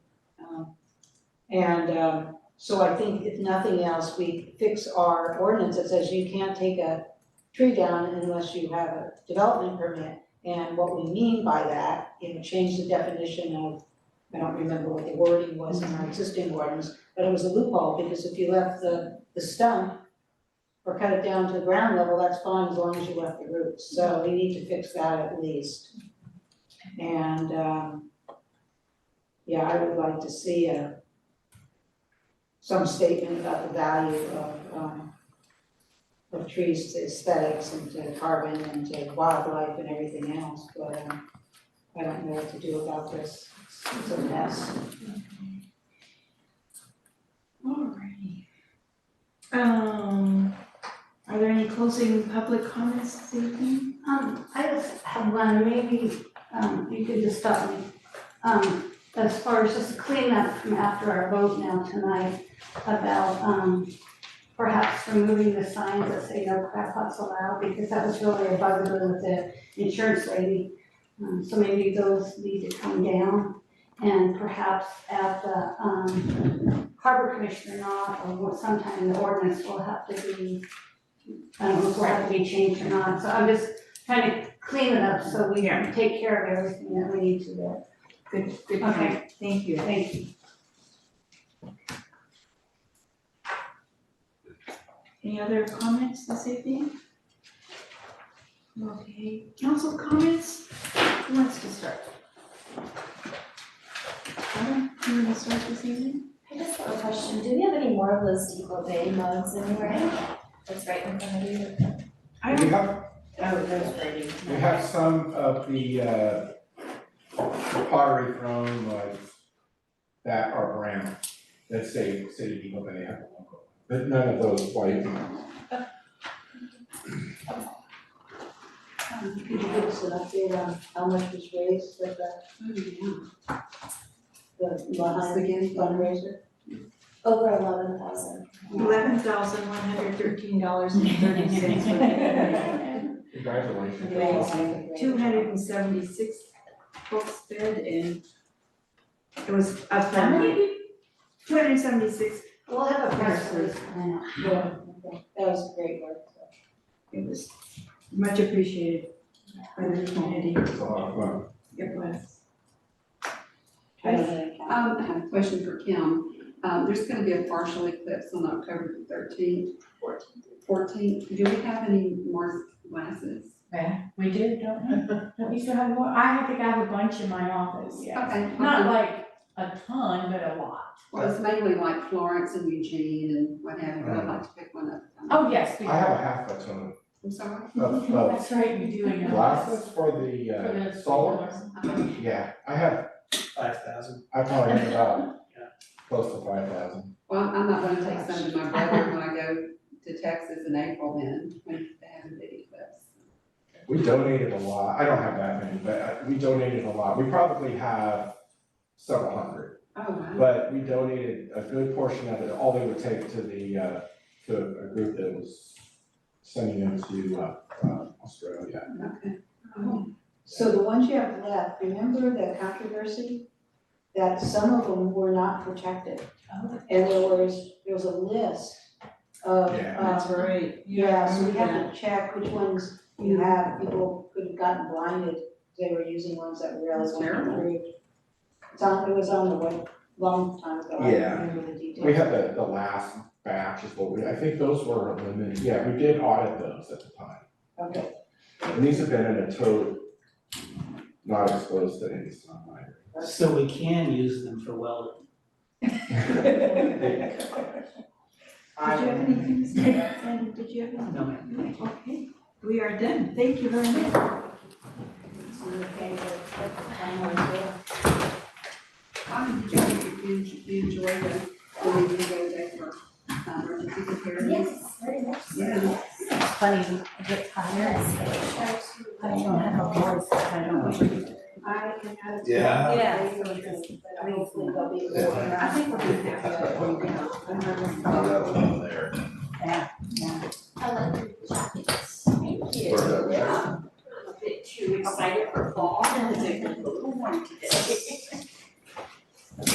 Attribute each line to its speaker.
Speaker 1: Um, And um, so I think if nothing else, we fix our ordinance that says you can't take a tree down unless you have a development permit. And what we mean by that, you know, change the definition of, I don't remember what the wording was in our existing ordinance, but it was a loophole, because if you left the, the stump or cut it down to the ground level, that's fine as long as you left the roots. So we need to fix that at least. And um, yeah, I would like to see a some statement about the value of, um, of trees to aesthetics and to carbon and to wildlife and everything else, but, um, I don't know what to do about this, It's- it's a mess.
Speaker 2: Alrighty. Um, are there any closing public comments this evening?
Speaker 3: Um, I just have one, maybe, um, you could just stop me. Um, as far as just cleanup from after our vote now tonight about, um, perhaps removing the signs that say no crab pots allowed, because that was really a bugaboo with the insurance lady. Um, so maybe those need to come down and perhaps at the, um, harbor commission or not, or sometime the ordinance will have to be, I don't know if it'll have to be changed or not, so I'm just trying to clean it up so we
Speaker 2: Yeah.
Speaker 3: can take care of everything that we need to there.
Speaker 2: Good, good
Speaker 3: Okay.
Speaker 2: point. Thank you.
Speaker 3: Thank you.
Speaker 2: Any other comments this evening? Okay, council comments, who wants to start? Adam, you wanna start this evening?
Speaker 4: I just have a question, do we have any more of those Depot Bay mugs anywhere? That's right in front of you.
Speaker 2: I
Speaker 5: We
Speaker 2: don't,
Speaker 5: have,
Speaker 2: oh, that's Brady.
Speaker 5: we have some of the uh pottery thrown like that are brown, that say City of Eagle Bay have a logo. But none of those white ones.
Speaker 1: Um, Could you give us an update on how much was raised with that, the behind the fundraiser?
Speaker 4: Over eleven thousand.
Speaker 2: Eleven thousand one hundred thirteen dollars and thirty cents.
Speaker 5: Congratulations.
Speaker 2: Thanks. Two hundred and seventy-six books bid and it was up
Speaker 4: How many
Speaker 2: Two hundred and seventy-six
Speaker 3: We'll have a press release coming out.
Speaker 1: Yeah, okay. that was great work.
Speaker 2: It was much appreciated by the community,
Speaker 5: It's a lot of fun.
Speaker 2: it was.
Speaker 1: I don't know.
Speaker 6: Um, I have a question for Kim. Um, there's gonna be a partial eclipse on October the thirteenth. Fourteenth. Do we have any more glasses?
Speaker 7: Yeah, we do, don't we? Don't we still have more? I have to have a bunch in my office, yeah.
Speaker 6: Okay.
Speaker 7: Not like a ton, but a lot.
Speaker 6: Well, it's mainly like Florence and Eugene and what have you, but I'd like to pick one up.
Speaker 7: Oh, yes, we do.
Speaker 5: I have a half a ton
Speaker 6: I'm sorry.
Speaker 5: of of
Speaker 7: That's right, we do, in your office.
Speaker 5: glasses for the
Speaker 7: For
Speaker 5: uh
Speaker 7: the
Speaker 5: solar.
Speaker 6: Okay.
Speaker 5: Yeah, I have,
Speaker 8: five thousand.
Speaker 5: I probably have about
Speaker 8: Yeah.
Speaker 5: close to five thousand.
Speaker 6: Well, I'm not gonna take some to my brother when I go to Texas in April then, when they have a big eclipse.
Speaker 5: We donated a lot. I don't have that many, but uh, we donated a lot. We probably have several hundred.
Speaker 6: Oh, wow.
Speaker 5: But we donated a good portion of it, all they would take to the, uh, to a group that was sending them to, uh, uh, Australia.
Speaker 6: Okay.
Speaker 1: So the ones you have left, remember the controversy? That some of them were not protected. And there was, there was a list of,
Speaker 5: Yeah.
Speaker 1: uh,
Speaker 2: right.
Speaker 1: yeah, so we have to check which ones you have, people could have gotten blinded, they were using ones that were
Speaker 6: That's
Speaker 1: eligible
Speaker 6: terrible.
Speaker 1: approved. It's on, it was on the web, long time ago, I
Speaker 5: Yeah.
Speaker 1: don't remember the details.
Speaker 5: We had the, the last batch is what we, I think those were limited, yeah, we did audit those at the time.
Speaker 1: Okay,
Speaker 5: And these have been in a tote, not exposed to any sunlight.
Speaker 8: So we can use them for welding.
Speaker 2: Did you have anything to say? And did you have any?
Speaker 8: No, ma'am.
Speaker 2: Okay, we are done, thank you very much.
Speaker 1: it's on the page of- of the final bill.
Speaker 6: How did you, you, you enjoy the, when you go there for, um, emergency preparedness?
Speaker 4: Yes, very much so.
Speaker 6: Yeah.
Speaker 4: Yes.
Speaker 7: Funny, I get tired.
Speaker 4: Yes, I tried to-
Speaker 7: voice, I
Speaker 6: I can have.
Speaker 8: Yeah.
Speaker 4: Yeah.
Speaker 1: But hopefully they'll be able to.
Speaker 6: I think we're gonna have to, you know, another.